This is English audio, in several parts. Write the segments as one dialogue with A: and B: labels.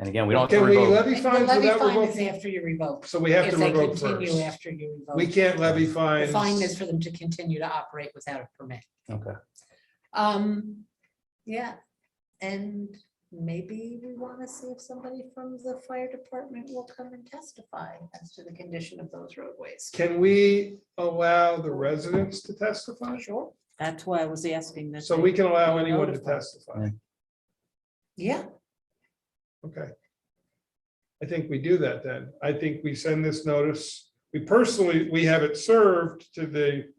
A: And again, we don't. have
B: Can
A: to
B: we
A: revoke.
B: levy
C: The
B: fines
C: levy
B: without
C: fine is
B: revoking?
C: after you revoke.
B: So we have
C: If
B: to
C: they
B: revoke
C: continue
B: first.
C: after you revoke.
B: We can't levy
C: The
B: fines.
C: fine is for them to continue to operate without a permit.
A: Okay.
C: Um, yeah, and maybe we want to see if somebody from the fire department will come and testify as to the condition of those roadways.
B: Can we allow the residents to testify? Sure.
D: That's why I was asking that.
B: So
D: they-
B: we can allow
D: they
B: anyone to
D: notify.
B: testify.
C: Yeah,
B: Okay. I think we do that then. I think we send this notice. We personally, we have it served to the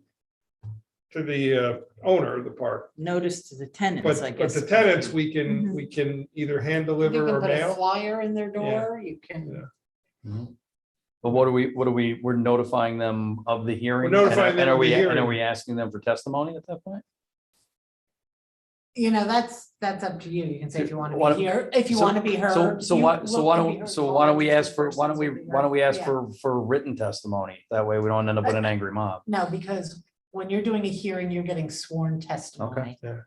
B: to the uh, owner of the park,
D: Notice to the tenants, I
B: but but
D: guess.
B: the tenants, we can, we can either hand
C: Mm-hmm. you
B: deliver
C: can
B: or
C: put a
B: mail.
C: flyer in their
B: Yeah.
C: door, you
B: Yeah.
C: can,
A: Mhm. But what are we, what are we, we're notifying them of the hearing? and-
B: notifying them
A: And are
B: of the
A: we, and are
B: hearing.
A: we asking them for testimony at that point?
C: you know, that's, that's up to you. You can say if you want to
A: Why-
C: be here, if you
A: so-
C: want to be heard.
A: So, so
C: you
A: why, so
C: look
A: why
C: to be heard
A: don't, so
C: by
A: why don't we
C: registered
A: ask for, why don't
C: persons
A: we,
C: to be
A: why don't we
C: heard.
A: ask
C: Yeah.
A: for, for written testimony? That way we don't end up with an angry mob.
C: No, because when you're doing a hearing, you're getting sworn testimony.
B: yeah.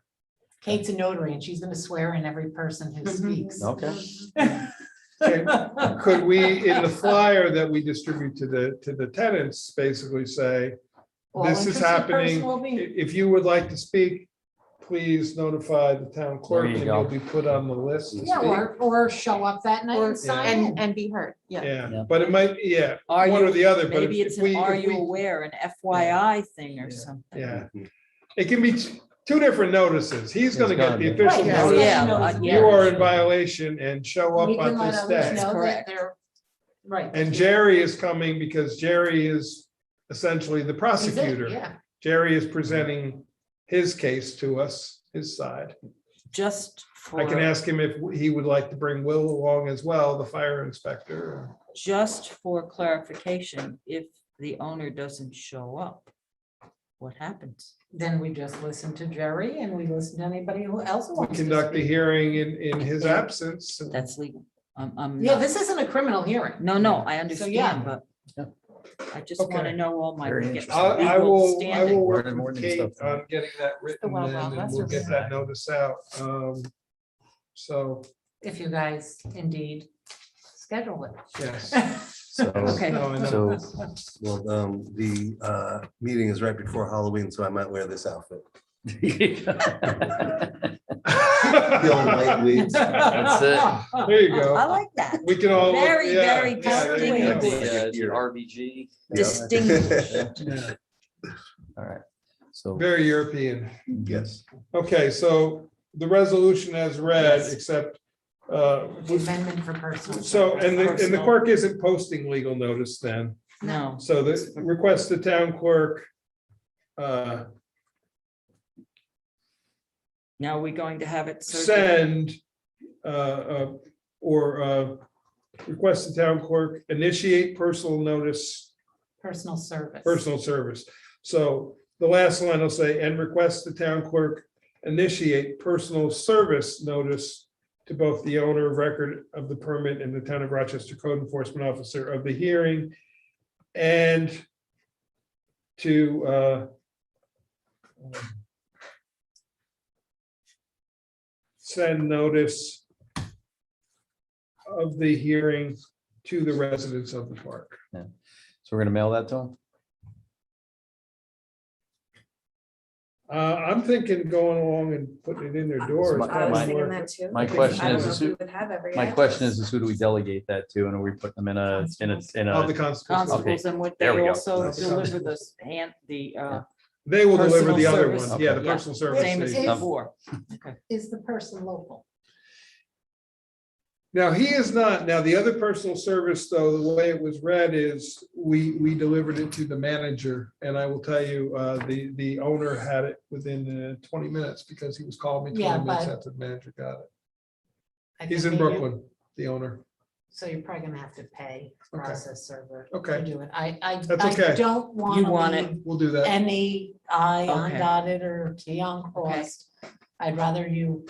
C: Kate's a notary and she's gonna swear in every person who
B: Mm-hmm.
C: speaks.
A: Okay.
B: Okay. Could we, in the flyer that we distribute to the to the tenants, basically say,
C: All
B: This is
C: interested
B: happening.
C: person will
B: I-
C: be-
B: If you would like to speak, please notify the town clerk
A: There you
B: and
A: go.
B: you'll be put on the list to
C: Yeah,
B: speak.
C: or, or show up that night
E: Or
C: and sign in.
E: and, and be heard, yeah.
B: Yeah,
A: Yeah.
B: but it might, yeah,
D: Are
B: one
D: you-
B: or the other, but if
D: Maybe it's
B: if
D: an
B: we,
D: are
B: if
D: you
B: we,
D: aware, an FYI thing or
B: Yeah.
D: something.
B: yeah. It can be t- two different notices. He's gonna get
A: gonna
B: the
A: be-
B: official
C: Right, yeah,
B: notice.
C: yeah.
D: uh,
B: You are in violation and show
C: We
B: up on
C: can let
B: this
C: others
B: day.
C: know that
D: Correct.
C: they're, right. that
B: And
C: he-
B: Jerry is coming because Jerry is essentially the
C: he's it,
B: prosecutor.
C: Yeah,
B: Jerry is presenting his case to us, his side.
D: Just for.
B: I can ask him if he would like to bring Will along as well, the fire inspector.
D: just for clarification, if the owner doesn't show up, what happens?
C: then we just listen to Jerry and we listen to anybody who else who
B: We
C: wants to
B: Conduct the
C: speak.
B: hearing in, in his absence. and-
D: That's legal. I'm, I'm.
C: Yeah,
D: not-
C: this isn't a criminal hearing.
D: No, no, I
C: So, yeah.
D: understand, but
A: Yeah.
D: I just want
B: Okay.
D: to know all my.
A: Very
D: legal-
A: interesting.
B: I, I
D: legal
B: will, I
D: standing.
B: will work
A: Learning more
B: with
A: than
B: Kate
A: stuff.
B: on getting that
E: the
B: written
E: wild,
B: in,
E: wild
B: and
E: west
B: we'll
E: of
B: get that notice out. Um, So,
C: If you guys indeed schedule
B: yes.
C: it.
F: So,
D: Okay.
B: No, I know.
F: so, well, um, the, uh, meeting is right before Halloween, so I might wear this outfit. The old white wigs.
A: That's it.
B: There you
D: I
B: go.
D: like that.
B: We can all. look-
D: Very,
B: yeah,
D: very
B: yeah, there you
D: comfortable.
B: go.
A: The, uh, the RBG.
D: Distinguished.
B: Yeah,
A: All right. So.
B: Very European.
F: Yes.
B: Okay, so the resolution as read,
D: Yes.
B: except, uh,
C: Amendment for personal.
B: so, and the, and the
D: Personal.
B: clerk isn't posting legal notice then.
D: No,
B: So this request the town clerk. uh,
D: now we're going to have it. certified?
B: Send, uh, uh, or, uh, request the town clerk initiate personal notice,
C: Personal service.
B: personal service. So the last line will say, and request the town clerk initiate personal service notice to both the owner of record of the permit and the town of Rochester code enforcement officer of the hearing and to uh, send notice of the hearing to the residents of the park.
A: So we're gonna mail that to them?
B: Uh, I'm thinking going along and putting it in their doors.
A: my- I was
B: doesn't work.
E: too.
A: My
B: Okay.
A: question
B: I don't
A: is,
B: know
A: is who, my question is, is who do we delegate that to? And are we putting them in a, in a, in
B: All the
A: a?
B: constables,
A: Okay.
D: Constables and would they
A: There we go.
D: also
F: Nice.
D: deliver the hand, the, uh,
B: they will deliver the
D: Personal
B: other
D: service.
B: one, yeah, the
D: Okay.
B: personal
D: same
B: service.
D: as
B: they-
C: Is-
D: before.
C: Is the person local?
B: Now, he is not, now, the other personal service, though, the way it was read is, we, we delivered it to the manager. And I will tell you, uh, the, the owner had it within uh, twenty minutes because he was calling me
C: Yeah,
B: twenty minutes
C: but-
B: after the manager got it.
C: I
B: He's
C: think
B: in
C: they do.
B: Brooklyn, the owner.
C: So you're probably gonna have to pay
B: Okay.
C: process server.
B: Okay.
C: To do it. I, I,
B: That's
C: I
B: okay.
C: don't want.
D: You want it.
B: We'll do that.
C: Any I
D: Okay.
C: undotted or T uncrossed. I'd rather you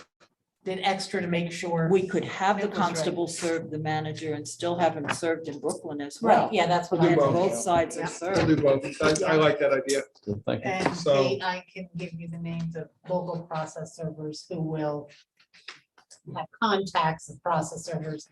C: did extra to make sure.
D: We could have the
C: That was right.
D: constable serve the manager and still have him served in Brooklyn as
C: Right,
D: well.
C: yeah, that's what
B: We'll
C: I.
D: And
B: do both.
D: both sides
C: Yeah.
D: are
B: We'll
D: served.
B: do both. I, I like that idea.
A: Thank you.
C: And
B: So-
C: they- I can give you the names of local process servers who will have contacts of process servers